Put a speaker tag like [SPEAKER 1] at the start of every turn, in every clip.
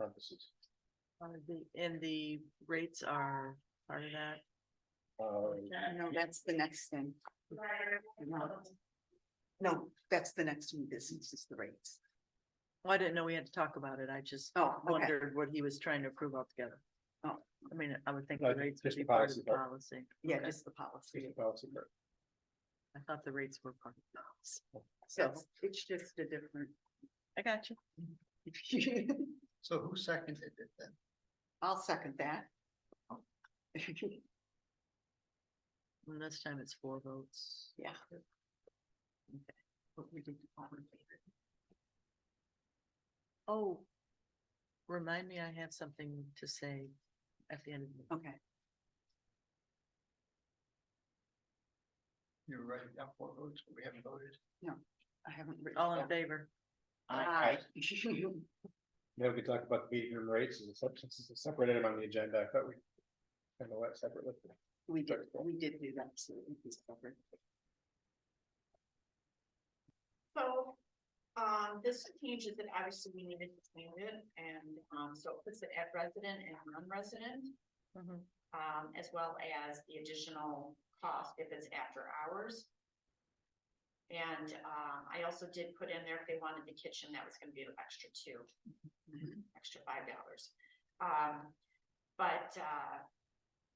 [SPEAKER 1] offices.
[SPEAKER 2] And Uh, the rates are part of that.
[SPEAKER 1] Uh,
[SPEAKER 3] No, that's the next thing. No. No, that's the next new business is the rates.
[SPEAKER 2] Well, I didn't know we had to talk about it. I just
[SPEAKER 3] Oh, okay.
[SPEAKER 2] wondered what he was trying to approve altogether.
[SPEAKER 3] Oh.
[SPEAKER 2] I mean, I would think
[SPEAKER 1] No,
[SPEAKER 2] the
[SPEAKER 1] ju-
[SPEAKER 2] rates
[SPEAKER 1] just
[SPEAKER 2] would be part of
[SPEAKER 1] policy
[SPEAKER 2] the
[SPEAKER 1] part.
[SPEAKER 2] policy.
[SPEAKER 3] Yeah,
[SPEAKER 2] Okay.
[SPEAKER 3] just the
[SPEAKER 1] it's
[SPEAKER 3] policy.
[SPEAKER 1] a policy, right.
[SPEAKER 2] I thought the rates were part of the policy.
[SPEAKER 3] So it's just a different.
[SPEAKER 2] I got you.
[SPEAKER 4] So who seconded it then?
[SPEAKER 3] I'll second that.
[SPEAKER 2] And this time it's four votes.
[SPEAKER 3] Yeah. Okay. But we did all in favor.
[SPEAKER 2] Oh. Remind me, I have something to say at the end. of the-
[SPEAKER 3] Okay,
[SPEAKER 4] You were writing down four votes, but we haven't voted.
[SPEAKER 3] I haven't. written Ah.
[SPEAKER 2] All in
[SPEAKER 3] down.
[SPEAKER 2] favor?
[SPEAKER 3] Aye.
[SPEAKER 1] Now we can talk about the meeting room rates and the substances, I separated them on the agenda, I thought we. kind of went separately.
[SPEAKER 3] We did, we did do that. so it is covered.
[SPEAKER 5] So, um, this changes it, obviously we needed to change it, and, um, so it puts it at resident and non-resident.
[SPEAKER 3] Mm-hmm.
[SPEAKER 2] Mhm.
[SPEAKER 5] Um, as well as the additional cost if it's after hours. And, um, I also did put in there if they wanted the kitchen, that was gonna be an extra two,
[SPEAKER 3] Mhm.
[SPEAKER 5] extra five dollars. Um, but, uh,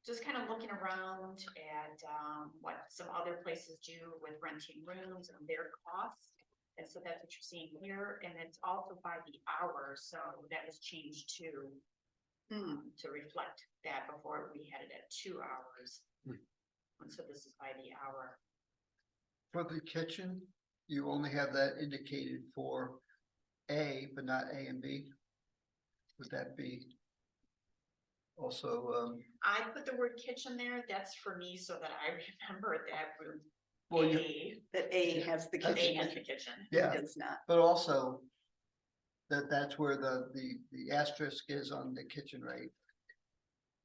[SPEAKER 5] just kind of looking around at, um, what some other places do with renting rooms and their costs. And so that's what you're seeing here, and it's also by the hour, so that was changed to,
[SPEAKER 3] Hmm,
[SPEAKER 5] um, to reflect that before we had it at two hours.
[SPEAKER 1] Hmm.
[SPEAKER 5] And so this is by the hour.
[SPEAKER 4] For the kitchen, you only have that indicated for A, but not A and B. Would that be? Also, um,
[SPEAKER 5] I put the word kitchen there, that's for me, so that I remember that room.
[SPEAKER 4] well, you,
[SPEAKER 5] A,
[SPEAKER 3] That A has the
[SPEAKER 5] A has
[SPEAKER 3] kitchen.
[SPEAKER 5] the kitchen.
[SPEAKER 4] yeah,
[SPEAKER 3] It's not.
[SPEAKER 4] but also. That, that's where the, the, the asterisk is on the kitchen, right?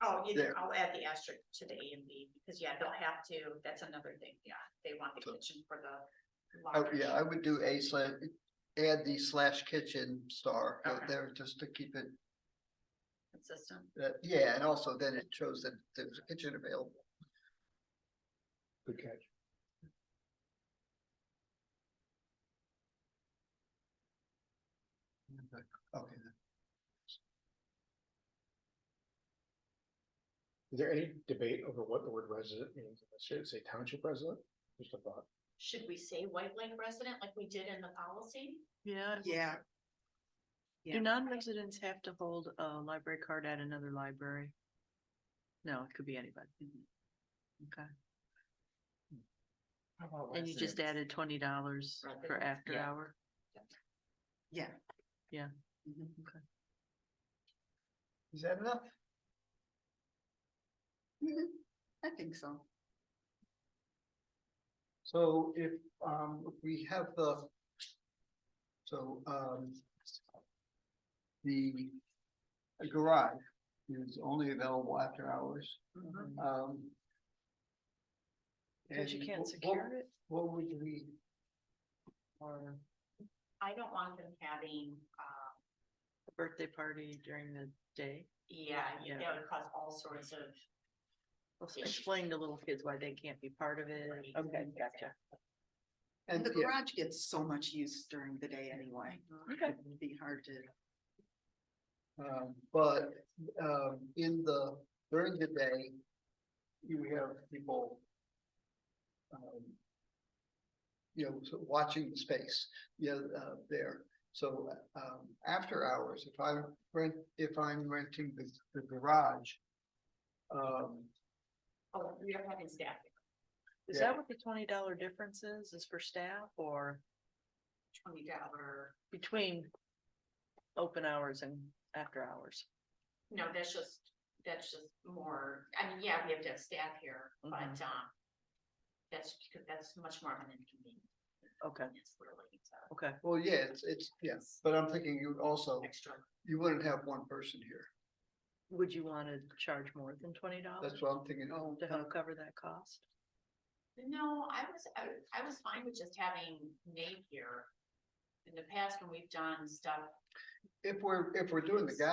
[SPEAKER 5] Oh, you
[SPEAKER 4] There.
[SPEAKER 5] I'll add the asterisk to the A and B, because yeah, they'll have to, that's another thing, yeah, they want the
[SPEAKER 4] So-
[SPEAKER 5] kitchen for the.
[SPEAKER 4] I
[SPEAKER 5] large.
[SPEAKER 4] yeah, I would do A slash, add the slash kitchen star
[SPEAKER 5] Okay.
[SPEAKER 4] there just to keep it
[SPEAKER 5] Consistent.
[SPEAKER 4] That, yeah, and also then it shows that there's a kitchen available.
[SPEAKER 1] Good catch.
[SPEAKER 4] Okay, then.
[SPEAKER 1] Is there any debate over what the word resident means? Should it say township resident? Just a thought.
[SPEAKER 5] Should we say White Lake resident like we did in the policy?
[SPEAKER 2] Yeah.
[SPEAKER 3] Yeah. Yeah.
[SPEAKER 2] Do non-residents have to hold a library card at another library? No, it could be anybody. Okay, and you just added twenty dollars for
[SPEAKER 5] Residents,
[SPEAKER 2] after
[SPEAKER 3] yeah.
[SPEAKER 2] hour?
[SPEAKER 3] Yeah.
[SPEAKER 2] Yeah.
[SPEAKER 3] Mhm.
[SPEAKER 4] Is that enough?
[SPEAKER 3] Mhm. I think so.
[SPEAKER 4] So if, um, if we have the. So, um. The garage is only available after hours,
[SPEAKER 2] Mm-hmm.
[SPEAKER 4] um.
[SPEAKER 2] Cause you
[SPEAKER 4] and
[SPEAKER 2] can't
[SPEAKER 4] what-
[SPEAKER 2] secure it
[SPEAKER 4] What what would we,
[SPEAKER 2] or
[SPEAKER 5] I don't want them having, um,
[SPEAKER 2] a birthday party during the day?
[SPEAKER 5] yeah, you-
[SPEAKER 2] Yeah.
[SPEAKER 5] that would cause all sorts of.
[SPEAKER 2] Explain to little kids why they can't be part of it. Okay, gotcha.
[SPEAKER 3] And
[SPEAKER 4] and
[SPEAKER 3] the
[SPEAKER 4] yeah,
[SPEAKER 3] garage gets so much use during the day anyway.
[SPEAKER 2] Okay.
[SPEAKER 3] It'd be hard to.
[SPEAKER 4] Um, but, um, in the, during the day, you have people. um, You know, so watching the space, you know, uh, there, so, um, after hours, if I rent, if I'm renting the, the garage. Um,
[SPEAKER 5] Oh, we are having staff.
[SPEAKER 2] Is
[SPEAKER 4] Yeah.
[SPEAKER 2] that what the twenty dollar difference is, is for staff or
[SPEAKER 5] twenty dollar,
[SPEAKER 2] between open hours and after hours?
[SPEAKER 5] no, that's just, that's just more, I mean, yeah, we have to have staff here, but,
[SPEAKER 2] Mhm.
[SPEAKER 5] um. That's, that's much more of an inconvenience,
[SPEAKER 2] Okay,
[SPEAKER 5] really, it's a
[SPEAKER 2] okay,
[SPEAKER 4] well, yeah, it's, it's, yeah, but I'm thinking you also,
[SPEAKER 5] extra.
[SPEAKER 4] you wouldn't have one person here,
[SPEAKER 2] would you wanna charge more than twenty dollars
[SPEAKER 4] that's what I'm thinking, oh,
[SPEAKER 2] to help cover that cost?
[SPEAKER 5] No, I was, I, I was fine with just having Nate here. In the past, when we've done stuff
[SPEAKER 4] if we're, if we're doing the guy.